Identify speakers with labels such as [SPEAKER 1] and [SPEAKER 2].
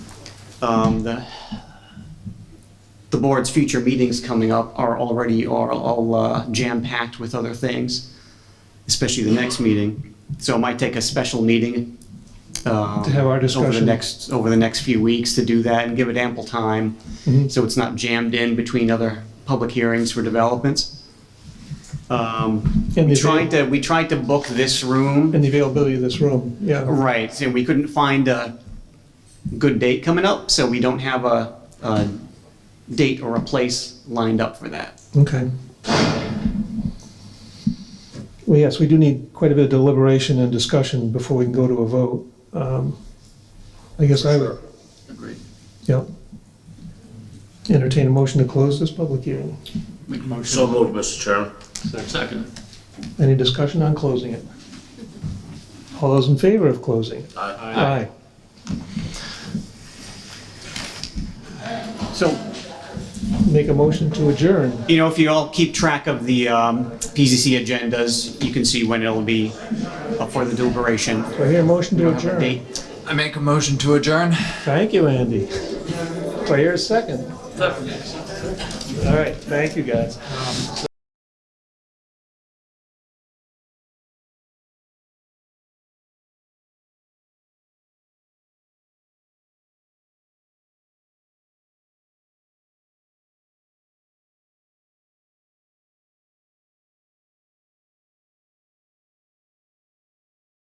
[SPEAKER 1] Um, the, the board's future meetings coming up are already are all uh, jam packed with other things, especially the next meeting. So it might take a special meeting um,
[SPEAKER 2] To have our
[SPEAKER 1] over the
[SPEAKER 2] discussion.
[SPEAKER 1] next over the next few weeks to do that and give it ample time,
[SPEAKER 2] Mm-hmm.
[SPEAKER 1] so it's not jammed in between other public hearings for developments. Um,
[SPEAKER 2] And
[SPEAKER 1] we
[SPEAKER 2] the
[SPEAKER 1] tried to we tried to book this room
[SPEAKER 2] and the availability of this room, yeah.
[SPEAKER 1] Right, and we couldn't find a good date coming up, so we don't have a, a date or a place lined up for that.
[SPEAKER 2] Okay. Well, yes, we do need quite a bit of deliberation and discussion before we can go to a vote. Um, I guess I would,
[SPEAKER 3] Agreed.
[SPEAKER 2] yeah. Entertain a motion to close this public hearing.
[SPEAKER 3] Make a
[SPEAKER 4] So
[SPEAKER 3] motion.
[SPEAKER 4] moved, Mr. Chairman.
[SPEAKER 3] Second.
[SPEAKER 2] Any discussion on closing it? All those in favor of closing? it?
[SPEAKER 4] Aye.
[SPEAKER 2] Aye.
[SPEAKER 1] So,
[SPEAKER 2] Make a motion to adjourn.
[SPEAKER 1] you know, if you all keep track of the, um, PZC agendas, you can see when it'll be up for the deliberation.
[SPEAKER 2] Do I hear a motion to adjourn?
[SPEAKER 1] Date.
[SPEAKER 3] I make a motion to adjourn.
[SPEAKER 2] Thank you, Andy. Do I hear a second? All right, thank you, guys.